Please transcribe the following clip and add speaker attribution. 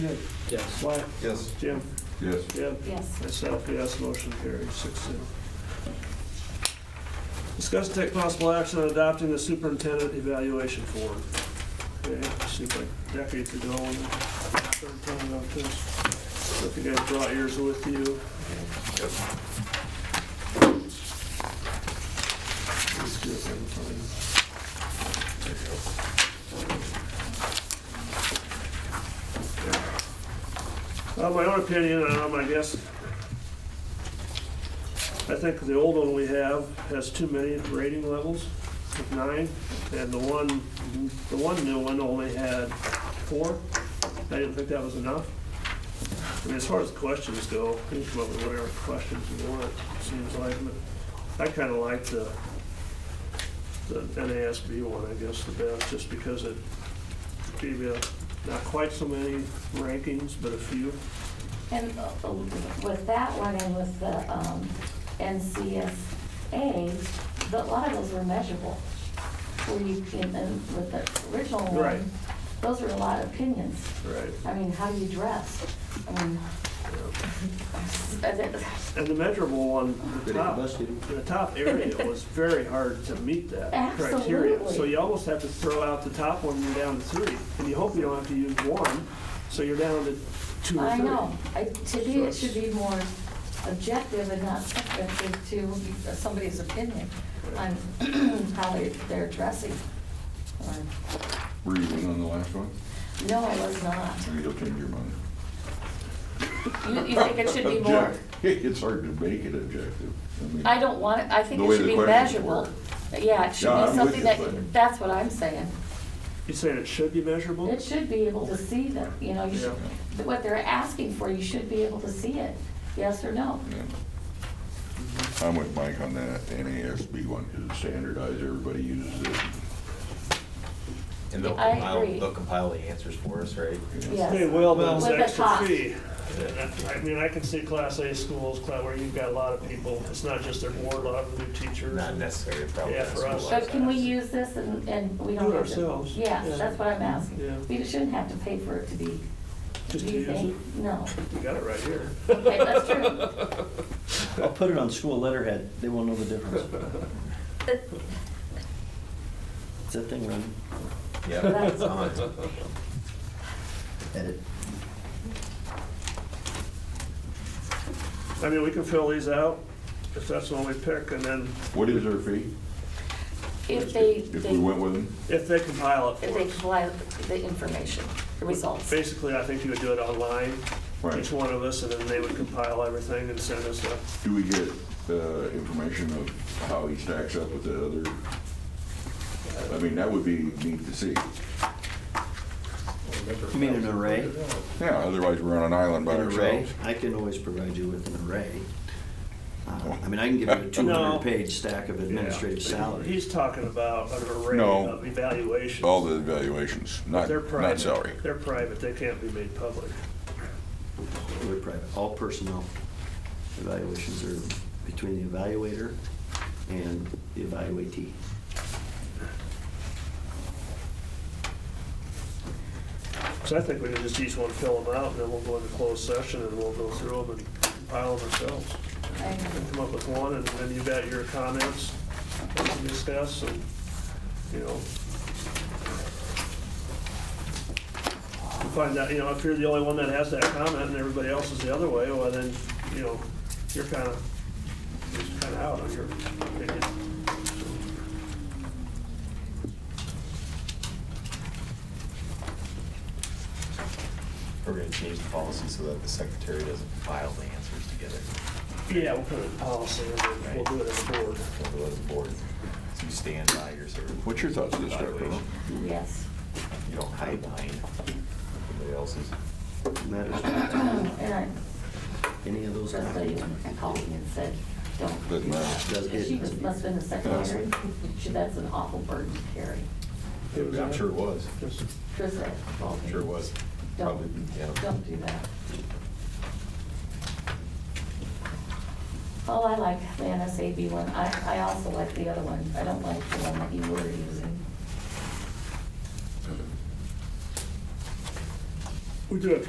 Speaker 1: Nick,
Speaker 2: Yes.
Speaker 1: Mike,
Speaker 3: Yes.
Speaker 1: Jim,
Speaker 3: Yes.
Speaker 1: Deb,
Speaker 4: Yes.
Speaker 1: myself, yes, motion carries six zero. Discuss and take possible action on adopting the superintendent evaluation form. Okay, seems like decades ago when we started talking about this. If you guys brought yours with you. Let's do it one time. Uh, my own opinion, um, I guess, I think the old one we have has too many rating levels, of nine, and the one, the one new one only had four. I didn't think that was enough. I mean, as far as questions go, you can come up with whatever questions you want, it seems like, but I kinda like the, the NASB one, I guess, the best, just because it gave you not quite so many rankings, but a few.
Speaker 4: And uh, with that one and with the um, NCSA, the- a lot of those were measurable. Where you can, and with the original
Speaker 1: Right.
Speaker 4: one, those were a lot of opinions.
Speaker 1: Right.
Speaker 4: I mean, how you dress. I mean, I think-
Speaker 1: And the measurable one, the top, the top area was very hard to meet that criteria. So
Speaker 4: Absolutely.
Speaker 1: you almost have to throw out the top one, you're down to three. And you hope you don't have to use one, so you're down to two or
Speaker 4: I
Speaker 1: three.
Speaker 4: know. I- To me, it should be more objective and not subjective to somebody's opinion on how they- they're dressing. Or-
Speaker 3: Were you in on the last one?
Speaker 4: No, I was not.
Speaker 3: Maybe you'll change your mind.
Speaker 4: You, you think it should be more?
Speaker 3: Object- It's hard to make it objective. mean,
Speaker 4: I don't want, it. I think
Speaker 3: The
Speaker 4: it
Speaker 3: way
Speaker 4: should
Speaker 3: the
Speaker 4: be
Speaker 3: questions
Speaker 4: measurable.
Speaker 3: were.
Speaker 4: Yeah, it should
Speaker 3: Yeah, I'm
Speaker 4: be
Speaker 3: with
Speaker 4: something
Speaker 3: you, but-
Speaker 4: that, that's what I'm saying.
Speaker 1: You saying it should be measurable?
Speaker 4: It should be able to see that, you know, you should, what they're asking for, you should be able to see it, yes or no.
Speaker 3: yeah. I'm with Mike on that NASB one, because it's standardized, everybody uses it.
Speaker 5: And they'll
Speaker 4: I
Speaker 5: compile,
Speaker 4: agree.
Speaker 5: they'll compile the answers for us, right?
Speaker 4: Yeah.
Speaker 1: They will, but it's
Speaker 4: With the
Speaker 1: extra
Speaker 4: top.
Speaker 1: fee. And I- I mean, I can see Class A schools, cla- where you've got a lot of people, it's not just their board, a lot of new teachers.
Speaker 5: Not necessarily probably.
Speaker 1: Yeah, for us.
Speaker 4: But can we use this and, and we don't
Speaker 1: Do it
Speaker 4: have to?
Speaker 1: ourselves, yeah.
Speaker 4: Yes, that's what I'm
Speaker 1: Yeah.
Speaker 4: asking. We shouldn't have to pay for it to be, do
Speaker 1: Just to
Speaker 4: you
Speaker 1: use it.
Speaker 4: think? No.
Speaker 1: You got it right here.
Speaker 4: Okay, that's true.
Speaker 2: I'll put it on school letterhead, they won't know the difference. Is that thing running?
Speaker 5: Yeah,
Speaker 4: Right.
Speaker 5: it's on.
Speaker 2: Edit.
Speaker 1: I mean, we can fill these out if that's the one we pick, and then
Speaker 3: What is their fee?
Speaker 4: If they,
Speaker 3: If
Speaker 4: they,
Speaker 3: we went with them?
Speaker 1: if they compile it
Speaker 4: if they
Speaker 1: for us.
Speaker 4: comply with the information, the results.
Speaker 1: Basically, I think you would do it online, each
Speaker 3: Right.
Speaker 1: one of us, and then they would compile everything and send us a,
Speaker 3: Do we get uh, information of how he stacks up with the other? I mean, that would be neat to see.
Speaker 2: You mean an array?
Speaker 3: Yeah, otherwise we're on an island by
Speaker 2: An array?
Speaker 3: ourselves.
Speaker 2: I can always provide you with an array. Uh, I mean, I can give you a two
Speaker 1: No.
Speaker 2: hundred page stack of administrative salaries.
Speaker 1: he's talking about an array
Speaker 3: No.
Speaker 1: of evaluations.
Speaker 3: All the evaluations, not,
Speaker 1: They're
Speaker 3: not
Speaker 1: private.
Speaker 3: salary.
Speaker 1: They're private, they can't be made public.
Speaker 2: They're private. All personnel evaluations are between the evaluator and the evaluatee.
Speaker 1: So I think we can just each one fill them out, and then we'll go into closed session, and we'll go through them and compile them ourselves.
Speaker 4: I-
Speaker 1: come up with one, and then you got your comments to discuss, and, you know. You Find out, you know, if you're the only one that has that comment and everybody else is the other way, well, then, you know, you're kind of, you're kind of out on your opinion.
Speaker 5: We're gonna change the policy so that the secretary doesn't compile the answers together.
Speaker 1: Yeah, we'll put it in policy, and then we'll do it as a board.
Speaker 5: We'll let the board, so you stand by your sort of.
Speaker 3: What's your thoughts on this, Dr. Earl?
Speaker 5: evaluation.
Speaker 4: Yes.
Speaker 5: You don't hide behind anybody else's.
Speaker 2: Matters not to
Speaker 4: And I,
Speaker 2: any of those.
Speaker 4: just so you
Speaker 2: items.
Speaker 4: called me and said, don't.
Speaker 3: Doesn't matter.
Speaker 2: Does it-
Speaker 4: She just must have been a secretary. She, that's an awful burden to carry.
Speaker 5: I'm sure it was.
Speaker 1: Just-
Speaker 4: Chris, I called me.
Speaker 5: Sure it was. Probably,
Speaker 4: Don't,
Speaker 5: yeah.
Speaker 4: don't do that. Oh, I like the NSAB one. I, I also like the other one. I don't like the one that you were using.
Speaker 1: We do have